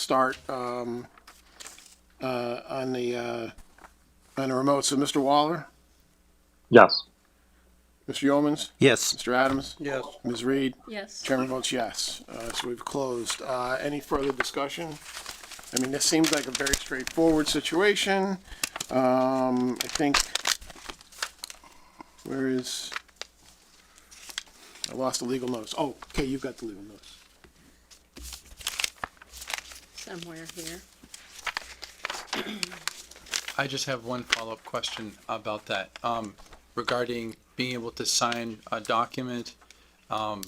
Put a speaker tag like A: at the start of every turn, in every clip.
A: start um, uh, on the, uh, on the remote. So Mr. Waller,
B: Yes.
A: Mr. Yeomans,
C: Yes.
A: Mr. Adams? Yes. Ms. Reed?
D: Yes.
A: Chairman votes yes. Uh, so we've closed. Uh, any further discussion? I mean, this seems like a very straightforward situation. Um, I think, where is, I lost the legal notice. Oh, okay, you've got the legal notice.
D: Somewhere here.
E: I just have one follow-up question about that, um, regarding being able to sign a document, um,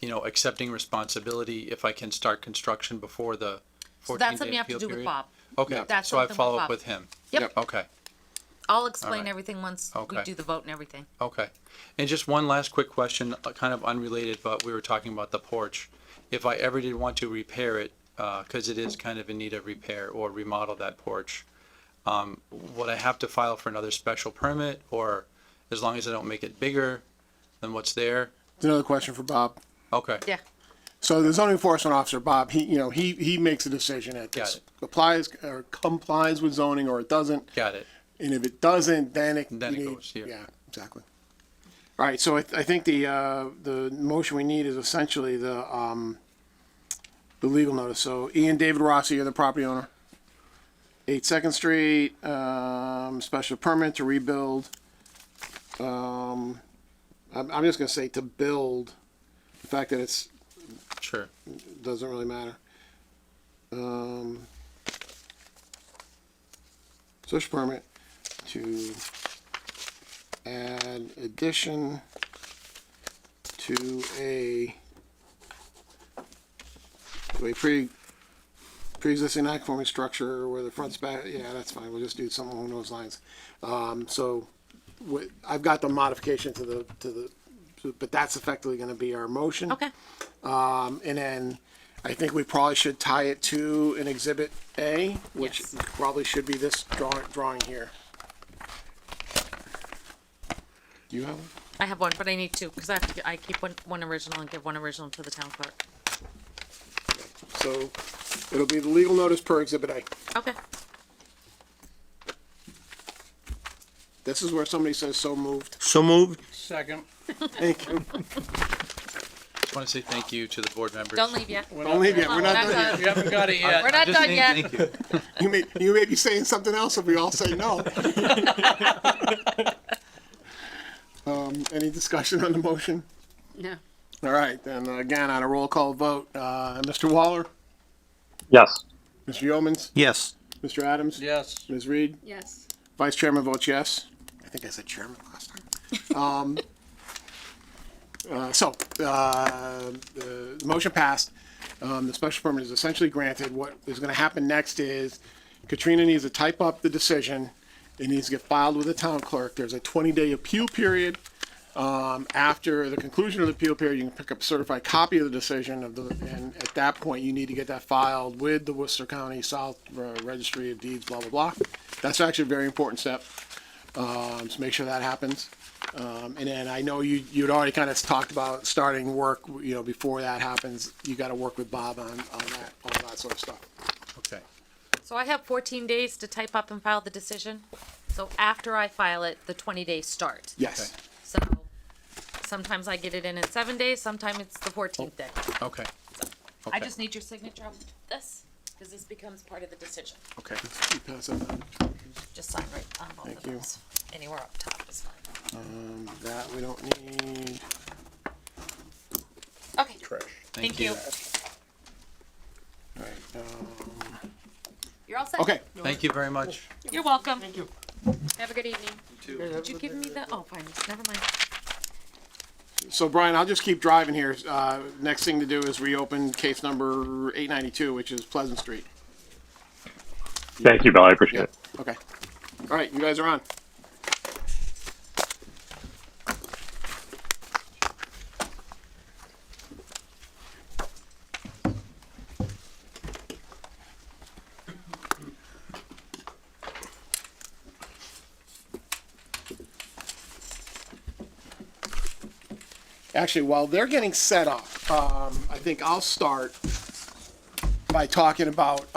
E: you know, accepting responsibility if I can start construction before the
F: So
E: fourteen-day
F: that's something you
E: appeal
F: have to do with
E: period?
F: Bob.
E: Okay,
F: That's
E: so I
F: something with
E: follow
F: Bob.
E: up with him?
F: Yep.
E: Okay,
F: I'll explain
E: Alright.
F: everything once we
E: Okay.
F: do the vote and everything.
E: okay. And just one last quick question, uh, kind of unrelated, but we were talking about the porch. If I ever did want to repair it, uh 'cause cause it is kind of in need of repair or remodel that porch, um, would I have to file for another special permit or as long as I don't make it bigger than what's there?
A: Another question for Bob.
E: Okay.
F: Yeah.
A: So the zoning enforcement officer, Bob, he, you know, he, he makes a decision at
E: Got
A: this.
E: it.
A: Applies or complies with zoning or it doesn't.
E: Got it.
A: And if it doesn't, then it.
E: Then
A: you
E: it
A: need-
E: goes, yeah.
A: Yeah, exactly. All right, so I, I think the, uh, the motion we need is essentially the, um, the legal notice. So Ian David Rossi, you're the property owner. Eight Second Street, um, special permit to rebuild. Um, I'm, I'm just gonna say to build. The fact that it's,
E: Sure.
A: doesn't really matter. Um, special permit to add addition to a to a pre pre-existing non-conforming structure where the front back yeah that's fine we'll just do something along those lines um, so wh- I've got the modification to the to the to- but that's effectively going to be our motion
F: Okay.
A: um, and then I think we probably should tie it to an exhibit A, which
F: Yes.
A: probably should be this drawing, drawing here. Do you have one?
F: I have one, but I need two because I have to, I keep one, one original and give one original to the town clerk.
A: So it'll be the legal notice per exhibit A.
F: Okay.
A: This is where somebody says so moved.
C: So moved.
G: Second.
A: Thank you.
E: Just want to say thank you to the board members.
F: Don't leave yet.
A: Don't leave yet. We're not
F: That's
A: done yet.
F: all.
G: You haven't got it yet.
F: We're not
E: Just
F: done
E: saying
F: yet.
E: Thank you.
A: You may, you may be saying something else if we all say no. Um, any discussion on the motion?
D: No.
A: All right, then again, on a roll call vote, uh, Mr. Waller,
B: Yes.
A: Mr. Yeomans,
C: Yes.
A: Mr. Adams?
G: Yes.
A: Ms. Reed?
D: Yes.
A: Vice Chairman votes yes. I think I said chairman last time. Um, uh, so, uh, the the motion passed. Um, the special permit is essentially granted. What is gonna happen next is Katrina needs to type up the decision. It needs to get filed with the town clerk. There's a twenty-day appeal period. Um, after the conclusion of the appeal period, you can pick up a certified copy of the decision of the, and at that point, you need to get that filed with the Worcester County South uh, Registry of Deeds, blah, blah, blah. That's actually a very important step. Um, so make sure that happens. Um, and then I know you, you'd already kind of talked about starting work, you know, before that happens, you gotta work with Bob on, on that, all that sort of stuff.
E: Okay.
F: So I have fourteen days to type up and file the decision. So after I file it, the twenty days start.
A: Yes.
F: So sometimes I get it in in seven days, sometimes it's the fourteenth day.
E: Okay.
F: I
A: Oh,
E: Okay.
F: just need your signature on this because this becomes part of the decision.
E: Okay.
A: You pass that down.
F: Just sign right on both of
A: Thank you.
F: those. Anywhere up top is fine.
A: That we don't need.
F: Okay.
E: Thank you.
A: All right, um,
F: You're all set.
A: Okay,
E: Thank you very much.
F: You're welcome.
D: Have a good evening.
F: Did you give me the, oh, fine, never mind.
A: so Brian, I'll just keep driving here. Uh, next thing to do is reopen case number eight ninety-two, which is Pleasant Street.
B: Thank you, Bill. I appreciate it.
A: Okay. All right, you guys are on. Actually, while they're getting set up, um, I think I'll start by talking about,